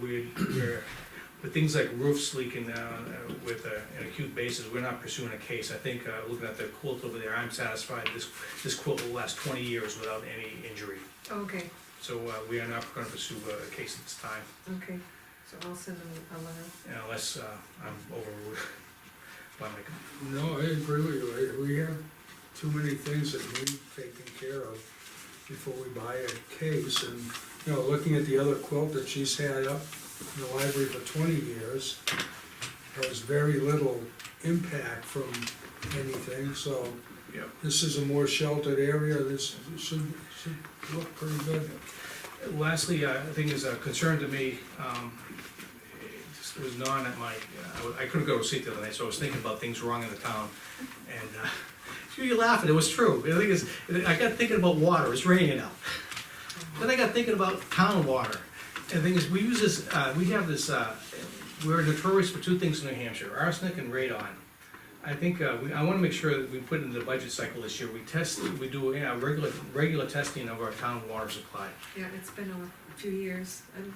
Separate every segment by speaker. Speaker 1: we, we're, with things like roofs leaking, uh, uh, with uh, an acute basis, we're not pursuing a case. I think, uh, looking at the quilt over there, I'm satisfied this, this quilt will last twenty years without any injury.
Speaker 2: Okay,
Speaker 1: So, uh, we are not gonna pursue a case at this time
Speaker 2: okay, so I'll send them a letter.
Speaker 1: unless, uh, I'm overruled by my
Speaker 3: No, I agree with you, I- we have too many things that need taken care of before we buy a case, and, you know, looking at the other quilt that she's had up in the library for twenty years, there was very little impact from anything, so
Speaker 1: Yep.
Speaker 3: this is a more sheltered area, this should, should look pretty good.
Speaker 1: Lastly, uh, the thing is a concern to me, um, it just was gnawing at my, uh, I wa- I couldn't go to sleep the other night, so I was thinking about things wrong in the town. And, uh, you're laughing, it was true. The thing is, I got thinking about water, it's raining now. Then I got thinking about town water. And the thing is, we use this, uh, we have this, uh, we're notorious for two things in New Hampshire, arsenic and radon. I think, uh, we, I wanna make sure that we put in the budget cycle this year, we test, we do, yeah, regular, regular testing of our town water supply.
Speaker 2: Yeah, it's been a few years. And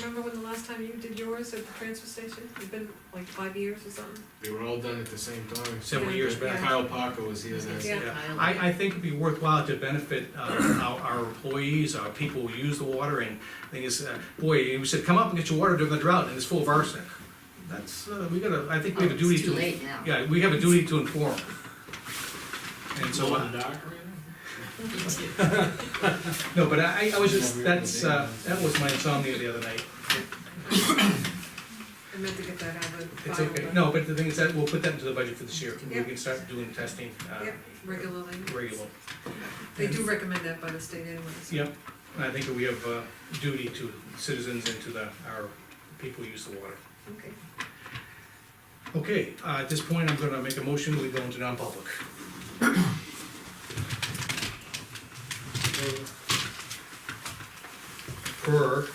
Speaker 2: remember when the last time you did yours at the transfer station? It's been like five years or something?
Speaker 4: They were all done at the same time. uh,
Speaker 1: several years back.
Speaker 4: Kyle Parker was here then.
Speaker 2: Yeah.
Speaker 1: Yeah. I, I think it'd be worthwhile to benefit uh, our, our employees, our people who use the water, and thing is, uh, boy, you said, come up and get your water during the drought, and it's full of arsenic. That's, uh, we gotta, I think we have a
Speaker 5: Oh,
Speaker 1: duty
Speaker 5: It's
Speaker 1: to.
Speaker 5: too late now.
Speaker 1: Yeah, we have a duty to inform. And so, uh, no, but I, I was just, that's, uh, that was my insomnia the other night.
Speaker 2: I meant to get that out of the
Speaker 1: It's
Speaker 2: file.
Speaker 1: okay,
Speaker 2: but-
Speaker 1: no, but the thing is that, we'll put that into the budget for this year, we
Speaker 2: Yeah.
Speaker 1: can start doing testing, uh,
Speaker 2: Yep, regularly.
Speaker 1: regular.
Speaker 2: They do recommend that by the state anyways.
Speaker 1: Yep, and I think we have a duty to citizens and to the, our people who use the water.
Speaker 2: Okay,
Speaker 1: Okay, uh, at this point, I'm gonna make a motion, we go into non-public. Per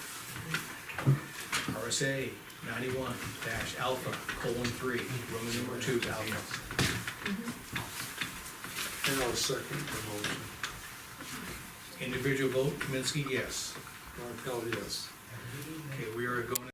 Speaker 1: RSA ninety-one dash alpha colon three, Roman number two alpha.
Speaker 3: And I'll second the motion,
Speaker 1: Individual vote, Kaminsky, yes.
Speaker 3: Martel, yes.
Speaker 1: Okay, we are going